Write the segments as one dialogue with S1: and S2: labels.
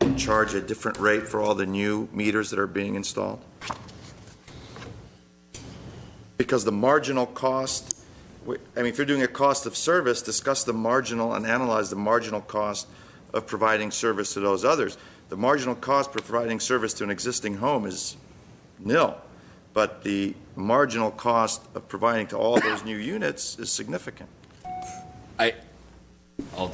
S1: and charge a different rate for all the new meters that are being installed? Because the marginal cost, we- I mean, if you're doing a cost of service, discuss the marginal and analyze the marginal cost of providing service to those others. The marginal cost for providing service to an existing home is nil, but the marginal cost of providing to all those new units is significant.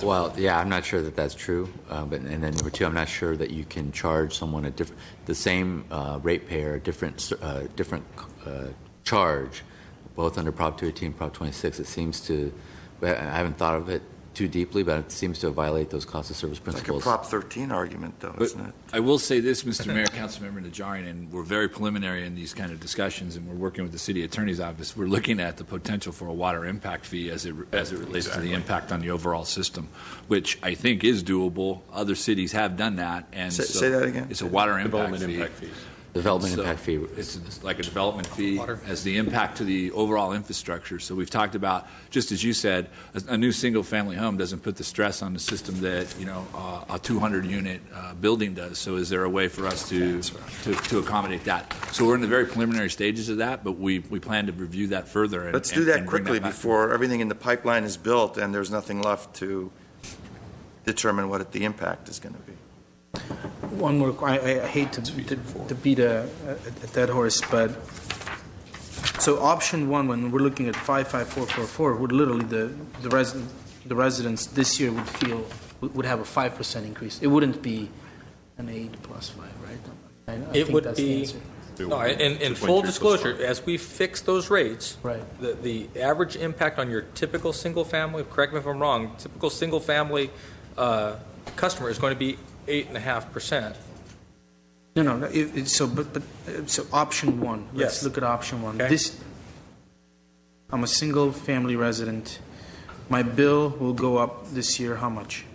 S2: Well, yeah, I'm not sure that that's true. Uh, but, and then number two, I'm not sure that you can charge someone a different, the same uh, ratepayer, a different, ser- uh, different uh, charge, both under Prop 218 and Prop 26. It seems to, I I haven't thought of it too deeply, but it seems to violate those cost of service
S1: Like a
S2: principles.
S1: Prop 13 argument, though,
S3: But
S1: isn't it?
S3: I will say this, Mr. Mayor, Councilmember Najarian, and we're very preliminary in these kind of discussions, and we're working with the city attorney's office. We're looking at the potential for a water impact fee as it, as it relates to the impact on the overall system, which I think is doable. Other cities have done that, and
S1: Say-
S3: so
S1: say that again?
S3: It's a water impact
S4: Development
S3: fee.
S4: impact fees.
S2: Development
S3: So
S2: impact fee.
S3: It's it's like a development fee as the impact to the overall infrastructure. So we've talked about, just as you said, a, a new single-family home doesn't put the stress on the system that, you know, uh, a 200-unit uh, building does. So is there a way for us to, to, to accommodate that? So we're in the very preliminary stages of that, but we, we plan to review that further. and-
S1: Let's
S3: and-
S1: do that
S3: and bring
S1: quickly
S3: back.
S1: before everything in the pipeline is built and there's nothing left to determine what the impact is going to be.
S5: One more, que- I, I hate to, to to beat a, a- a dead horse, but, so option one, when we're looking at five, five, four, four, four, would literally the, the resident, the residents this year would feel, would would have a five percent increase. It wouldn't be an eight plus five, right? I- I
S6: It
S5: think
S6: would
S5: that's the
S6: be-
S5: answer.
S6: No, in, in full disclosure, as we fix those rates.
S5: Right.
S6: The, the average impact on your typical single-family, correct me if I'm wrong, typical single-family uh, customer is going to be eight and a half percent.
S5: No, no, no, it, it, so, but, but, uh, so option one, let's
S6: Yes.
S5: look at option one.
S6: Okay.
S5: This, I'm a single-family resident, my bill will go up this year, how much?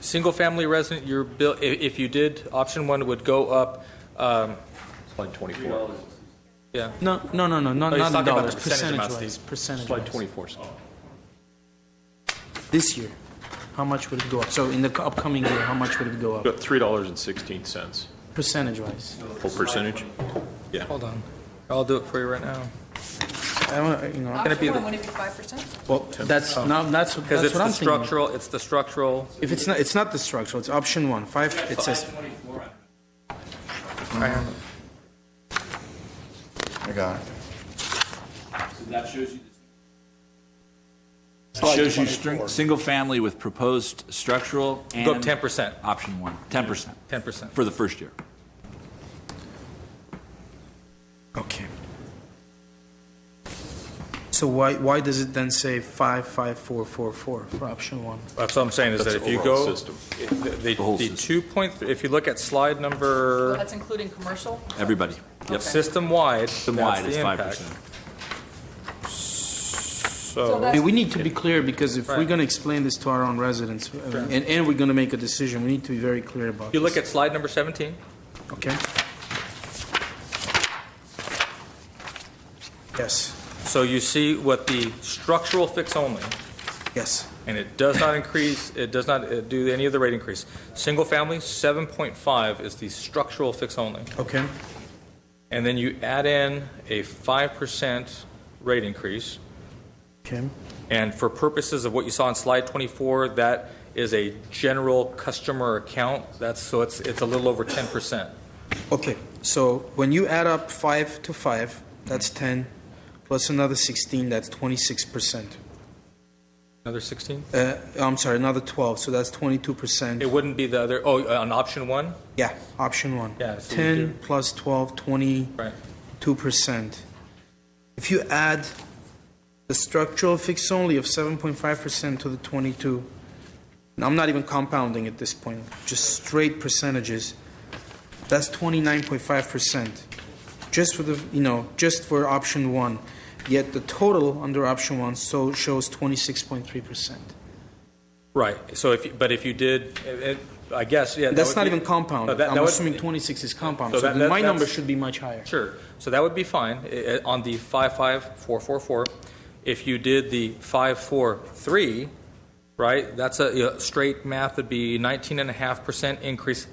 S6: Single-family resident, your bill, i- if you did, option one would go up, um,
S4: Slide 24,
S6: yeah.
S5: No, no, no, no, not,
S6: No, Oh, he's
S5: not in
S6: talking about
S5: dollars,
S6: the percentage amounts,
S5: percentage-wise,
S4: slide
S5: percentage-wise.
S4: 24. sir.
S5: This year, how much would it go up? So in the c- upcoming year, how much would it go up,
S4: About $3.16,
S5: percentage-wise?
S4: full percentage.
S6: Hold on. I'll do it for you right now.
S5: I don't, you know,
S6: Gonna be
S7: Option
S6: the-
S7: one, would it be five percent?
S5: well, that's, no, that's,
S6: Oh. Because
S5: that's
S6: it's
S5: what
S6: the
S5: I'm thinking.
S6: structural, it's the structural.
S5: If it's not, it's not the structural, it's option one, five, it says,
S1: I got it.
S3: Shows you string, single-family with proposed structural and.
S6: Go up 10%,
S3: Option one, 10%
S6: 10%.
S3: for the first year.
S5: okay. So why, why does it then say five, five, four, four, four for option one?
S6: That's what I'm saying, is that
S4: That's
S6: if
S4: the
S6: you
S4: overall
S6: go,
S4: system.
S6: if the- the,
S3: whole
S6: the
S3: system.
S6: two point, if you look at slide number.
S7: That's including commercial?
S3: Everybody.
S7: Okay.
S6: System-wide,
S3: System-wide is
S6: that's the impact.
S3: 5%.
S7: So
S5: I
S7: that's
S5: mean, we need to be clear, because if we're
S6: Right.
S5: gonna explain this to our own residents, uh, and, and we're gonna make a decision, we need to be very clear about
S6: If you
S5: this,
S6: look at slide number 17,
S5: okay? Yes,
S6: so you see what the structural fix only,
S5: yes,
S6: and it does not increase, it does not uh, do any of the rate increase. Single family, 7.5 is the structural fix only.
S5: okay,
S6: And then you add in a 5% rate increase.
S5: okay,
S6: And for purposes of what you saw on slide 24, that is a general customer account. That's, so it's, it's a little over 10%.
S5: okay. So when you add up five to five, that's ten, plus another sixteen, that's twenty-six percent.
S6: Another 16?
S5: Uh, I'm sorry, another twelve, so that's twenty-two percent.
S6: It wouldn't be the other, oh, on option one?
S5: Yeah, option one.
S6: Yeah, so we do-
S5: Ten plus twelve, twenty.
S6: Right.
S5: two percent. If you add the structural fix only of seven point five percent to the twenty-two, and I'm not even compounding at this point, just straight percentages, that's twenty-nine point five percent. Just for the, you know, just for option one, yet the total under option one so shows twenty-six point three percent.
S6: Right, so if, you- but if you did, it- it- I guess, yeah. that
S5: That's
S6: would
S5: not
S6: be-
S5: even
S6: No,
S5: compounded,
S6: that- that
S5: I'm
S6: would-
S5: assuming twenty-six is compounded,
S6: So
S5: so
S6: that-
S5: then
S6: that-
S5: my number
S6: that's-
S5: should be much higher.
S6: Sure, so that would be fine i- i- on the 55444. If you did the 543, right, that's a, you know, straight math would be 19.5% increase